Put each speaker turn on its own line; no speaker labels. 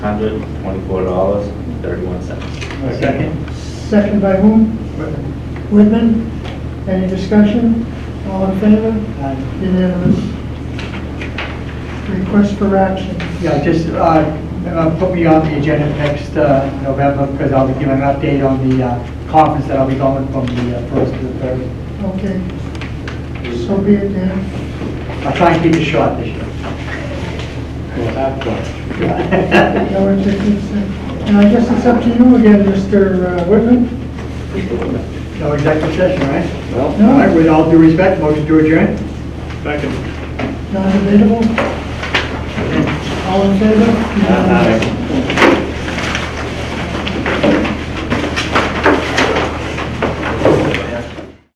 hundred twenty-four dollars and thirty-one cents.
Second.
Second by whom? Whitman. Any discussion? All in favor?
Uh,
Unanimous. Request for action.
Yeah, just uh, uh, put me on the agenda for next uh, November because I'll be giving an update on the uh, conference that I'll be going from the uh, first to the third.
Okay. So be it then.
I'll try and keep it short this year. Yeah.
No interference. And I guess it's up to you again, Mr. Whitman.
No executive session, right?
Well,
All right, with all due respect, motion to adjourn?
Non-debatable. All in favor? Unanimous.